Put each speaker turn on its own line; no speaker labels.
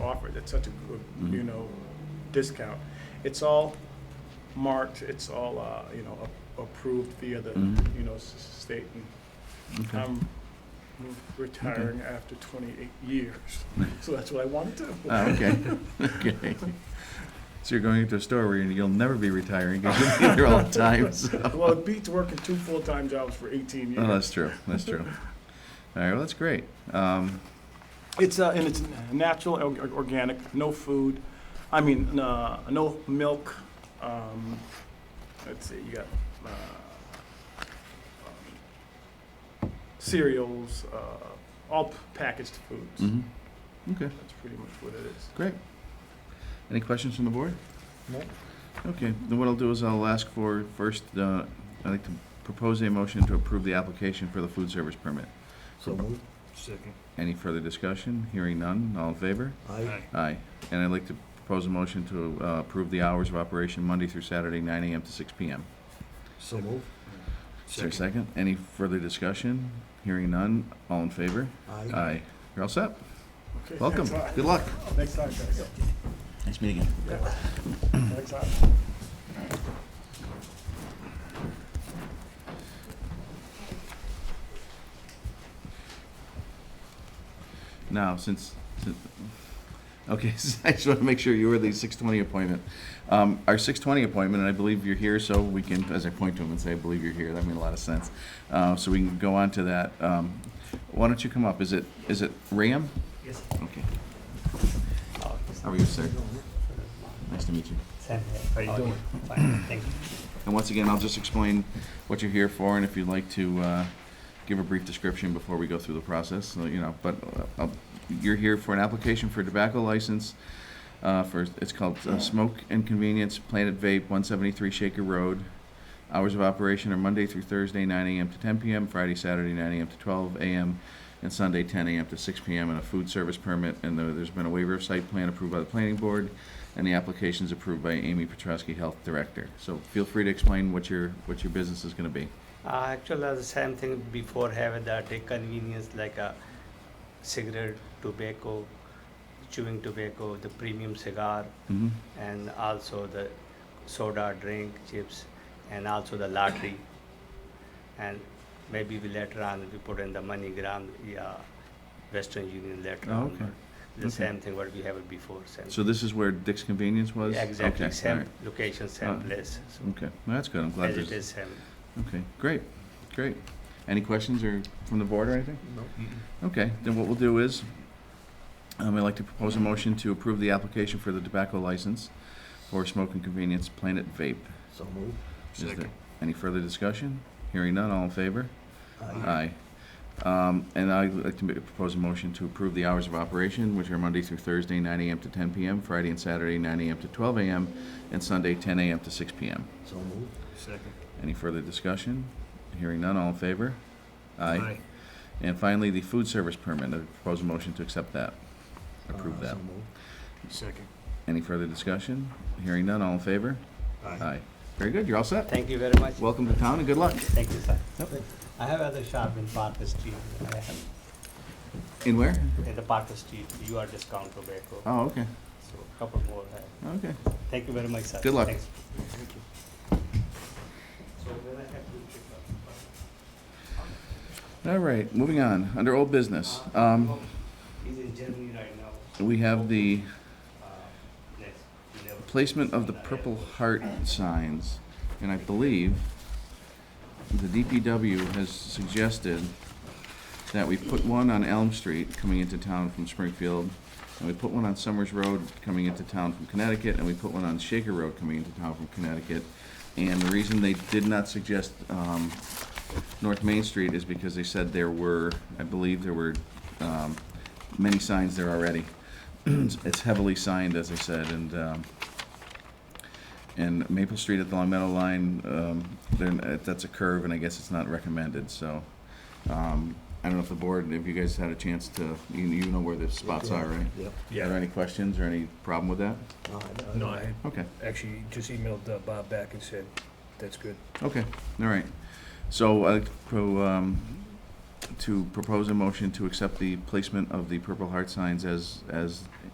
offered at such a, good,
Mm-hmm.
you know, discount. It's all marked, it's all, uh, you know, a- approved via the,
Mhm.
you know, s- state. and
Okay.
I'm retiring after 28 years, so that's what I want to do.
Ah, okay, okay. So you're going into a store where you'll never be retiring, you'll be there all the time, so.
Well, it beats working two full-time jobs for 18
Oh,
years.
that's true, that's true. All right, well, that's great. Um,
It's, uh, and it's natural, or- organic, no food, I mean, uh, no milk. Um, let's see, you got, uh, um, cereals, uh, all packaged foods.
mhm. Okay,
That's pretty much what it is.
great. Any questions from the board?
No.
Okay, then what I'll do is I'll ask for first, uh, I'd like to propose a motion to approve the application for the food service permit.
So moved. Second.
Any further discussion? Hearing none, all in favor?
Aye.
Aye. And I'd like to propose a motion to uh, approve the hours of operation Monday through Saturday, 9 AM to 6 PM.
So moved.
Is there a second? Any further discussion? Hearing none, all in favor?
Aye.
Aye. You're all set.
Okay,
Welcome.
thanks a lot.
Good luck.
Next time, guys.
Nice meeting you.
Yeah. Next time.
Now, since, since- okay, so I just want to make sure you were the 6:20 appointment. Um, Our 6:20 appointment, and I believe you're here, so we can, as I point to him and say, I believe you're here, that made a lot of sense. Uh, So we can go on to that. Um, Why don't you come up? Is it, is it Ram?
Yes.
Okay. How are you, sir? Nice to meet you.
Sam,
How you doing?
Fine, thank you.
And once again, I'll just explain what you're here for, and if you'd like to uh, give a brief description before we go through the process, so, you know, but uh, I'll- you're here for an application for a tobacco license uh, for, it's called uh, Smoke and Convenience Planet Vape, 173 Shaker Road. Hours of operation are Monday through Thursday, 9 AM to 10 PM, Friday, Saturday, 9 AM to 12 AM, and Sunday, 10 AM to 6 PM, and a food service permit, and there- there's been a waiver of site plan approved by the planning board and the application is approved by Amy Petrowski, Health Director. So feel free to explain what your, what your business is gonna be.
Uh, actually, uh, the same thing before have the take convenience like a cigarette, tobacco, chewing tobacco, the premium cigar,
Mm-hmm,
and also the soda, drink, chips, and also the lottery. And maybe we later on we put in the MoneyGram, yeah, Western Union later
Oh,
on.
okay.
but The
Okay.
same thing what we have before. Same.
so this is where Dick's Convenience was?
exactly
Okay,
same
all right.
location, same
Uh,
place. So
Okay, well, that's good, I'm glad
as it
there's,
is same.
okay, great, great. Any questions or from the board or anything?
No.
Okay, then what we'll do is, um, I'd like to propose a motion to approve the application for the tobacco license for Smoke and Convenience Planet Vape.
So moved.
Is there Any further discussion? Hearing none, all in favor? Aye. Um, And I'd like to ma- propose a motion to approve the hours of operation, which are Monday through Thursday, 9 AM to 10 PM, Friday and Saturday, 9 AM to 12 AM, and Sunday, 10 AM to 6 PM.
So moved.
Second.
Any further discussion? Hearing none, all in favor? Aye.
Aye.
And finally, the food service permit, I propose a motion to accept that, approve
Uh,
that.
So moved.
Second.
Any further discussion? Hearing none, all in favor?
Aye.
Aye. Very good, you're all set.
Thank you very much.
Welcome to town and good luck.
Thank you, sir.
Yep.
I have other shop in Parker Street. I have
In where?
in the Parker Street, you are discount tobacco.
Oh, okay,
So a couple more. I-
okay.
Thank you very much, sir.
Good luck.
Thanks. uh,
All right, moving on, under old business. Um,
He's in uh, Germany right now.
We have the
Uh, next, we never-
placement of the Purple Heart signs, and I believe the DPW has suggested that we put one on Elm Street coming into town from Springfield, and we put one on Summers Road coming into town from Connecticut, and we put one on Shaker Road coming into town from Connecticut. And the reason they did not suggest um, North Main Street is because they said there were, I believe there were um, many signs there already. It's heavily signed, as I said, and, um, and Maple Street at the Long Meadow Line, um, then, that's a curve, and I guess it's not recommended, so. um, I don't know if the board, if you guys had a chance to, you, you know where the spots are, right?
Yep.
Are there
Yeah.
any questions or any problem with that?
No, I-
No, I
Okay,
actually just emailed uh, Bob back and said, that's good.
okay, all right. So I'd like to pro, um, to propose a motion to accept the placement of the Purple Heart signs as, as